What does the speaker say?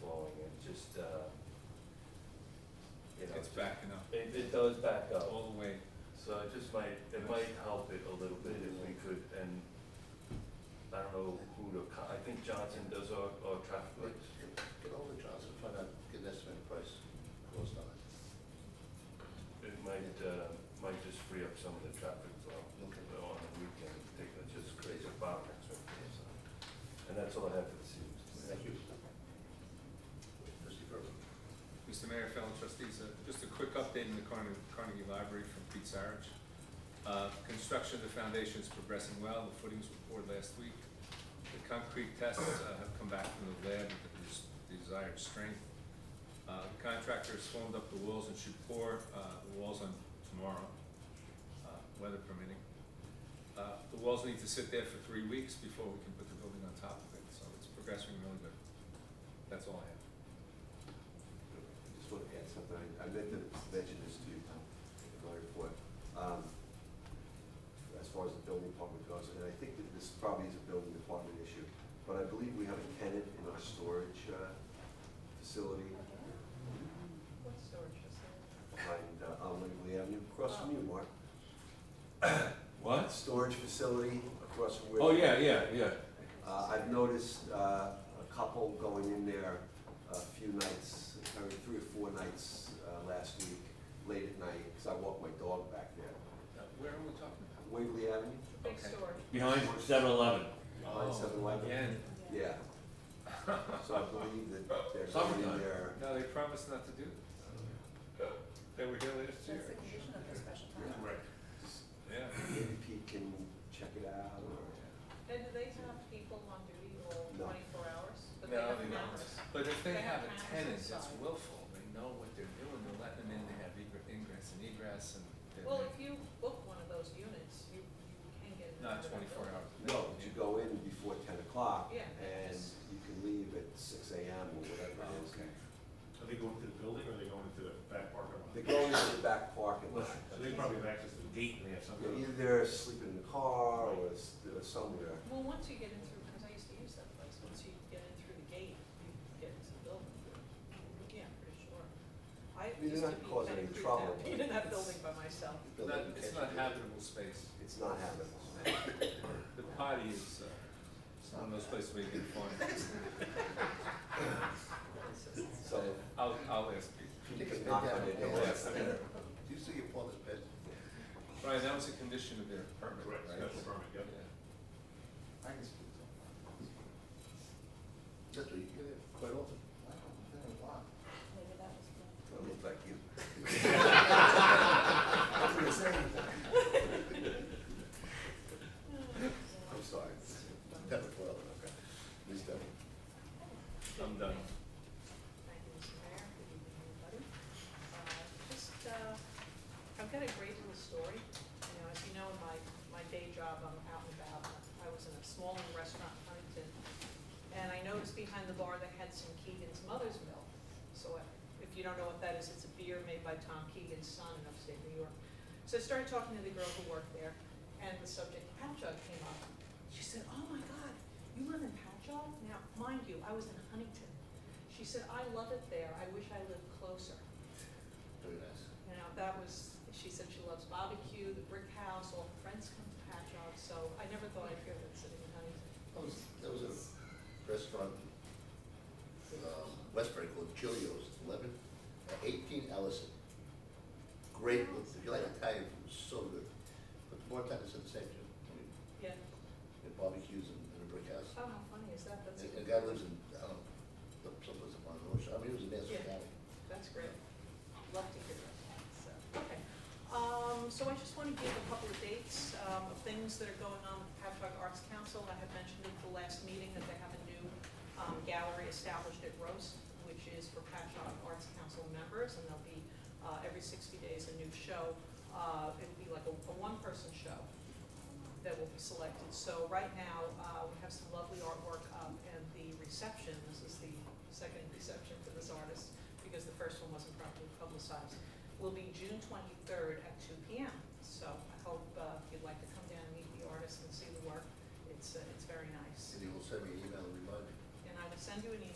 uh, backing up It, it does back up, all the way. so it just might, it might help it a little bit if we could, and I don't know who to, co- I think Johnson does our, our traffic Get lights. get over to Johnson, find out, get an estimate price, cost on it. It might, uh, might just free up some of the traffic flow Okay. uh, on the weekend, take, that just creates a bottleneck, so. And that's all I have for this evening. Thank you. Trustee Berman. Mr. Mayor, fellow trustees, uh, just a quick update in the Carnegie Carnegie Library from Pete Sarich. Uh, Construction of the foundation is progressing well, the footings were poured last week. The concrete tests uh, have come back from the lab with the des- desired strength. Uh, The Contractor has formed up the walls and should pour uh, the walls on tomorrow, uh, weather permitting. Uh, The walls need to sit there for three weeks before we can put the building on top of it, so it's progressing really good. That's all I have. Just want to add something, I meant to mention this to you in my report. Um, As far as the building department goes, and I think that this probably is a building department issue, but I believe we have a tenant in our storage uh, facility What storage facility? behind uh, on Waverly Avenue, across from you, Mark. What? Storage facility across from where. Oh, yeah, yeah, yeah. Uh, I've noticed uh, a couple going in there a few nights, or three or four nights uh, last week, late at night, because I walk my dog back there. Uh, Where are we talking about? Waverly Avenue, Big Okay. storage. Behind 7 Eleven. Oh, behind Seven Eleven. Again, Yeah. So I believe that they're going in Summertime. there. no, they promised not to do it. They were here last year. That's the condition of the special permit. Right. Yeah. Maybe Pete can check it out or. And do they have people on duty all No. twenty-four hours? But No, have they don't. cameras. But if they They have have a cameras tenant that's inside. willful, they know what they're doing, they're letting them in, they have egre- ingress and egress and. they're- Well, if you book one of those units, you, you can get. it Not under the twenty-four building. hours. a day, No, but you go in before ten o'clock. Yeah. And you can leave at six AM or whatever it is. Okay. Are they going to the building or are they going to the back parking lot? They go into the back parking lot. So they probably have access to the gate and they have Yeah, something. Either they're sleeping in the car or s- or somewhere. Well, once you get in through, because I used to use that place, once you get in through the gate, you get into the building. Yeah, I'm pretty sure. I mean, they're used not to be causing kind any of creeped trouble, out being but in that it's- building by myself. The Not, building it's catches not it. habitable space. It's not habitable. The potty is, uh, it's one of those places where you can find. So I'll, I'll ask Pete. you can knock on it Yeah, that's down. better. Do you see your father's bed? Right, that was a condition of their permit, right? Correct, special permit, yep. Yeah. I can speak to him. That's what you get it quite often. Maybe that was. I look like you. I'm gonna say anything. I'm sorry. Devin, well, okay. Ms. Devin. I'm done. Thank you, Mr. Mayor, good evening, everybody. Uh, Just, uh, I've got a great little story. You know, as you know, in my, my day job, I'm out and about. I was in a small restaurant in Huntington, and I noticed behind the bar they had some Keegan's Mother's Milk. So I- if you don't know what that is, it's a beer made by Tom Keegan's son in upstate New York. So I started talking to the girl who worked there, and the subject Patchogue came up. She said, "Oh my God, you live in Patchogue?" Now, mind you, I was in Huntington. She said, "I love it there. I wish I lived closer." Very nice. You know, that was, she said she loves barbecue, the brick house, all her friends come to Patchogue, so I never thought I'd hear that sitting in Huntington. That was, that was a restaurant, um, Westbury called Chilio's, eleven, uh, eighteen Ellison. Great, if you like Italian food, it's so good. But the bartender said the same thing, I mean, Yeah, they had barbecues in, in a brick house. oh, how funny is that? That's, And and the guy lives in, I don't know, someplace in Monroe, I mean, he was a nasty Yeah. guy. that's great. Love to hear that, so, okay. Um, so I just want to give a couple of dates, um, of things that are going on with Patchogue Arts Council. I had mentioned at the last meeting that they have a new, um, gallery established at Roast, which is for Patchogue Arts Council members, and they'll be uh, every sixty days, a new show. Uh, it'll be like a, a one-person show that will be selected. So right now, uh, we have some lovely artwork up and the reception, this is the second reception for this artist, because the first one wasn't properly publicized, will be June twenty-third at two P M. So I hope, uh, if you'd like to come down and meet the artist and see the work, it's, uh, it's very nice. And he will send me an email and remind me. And I will send you an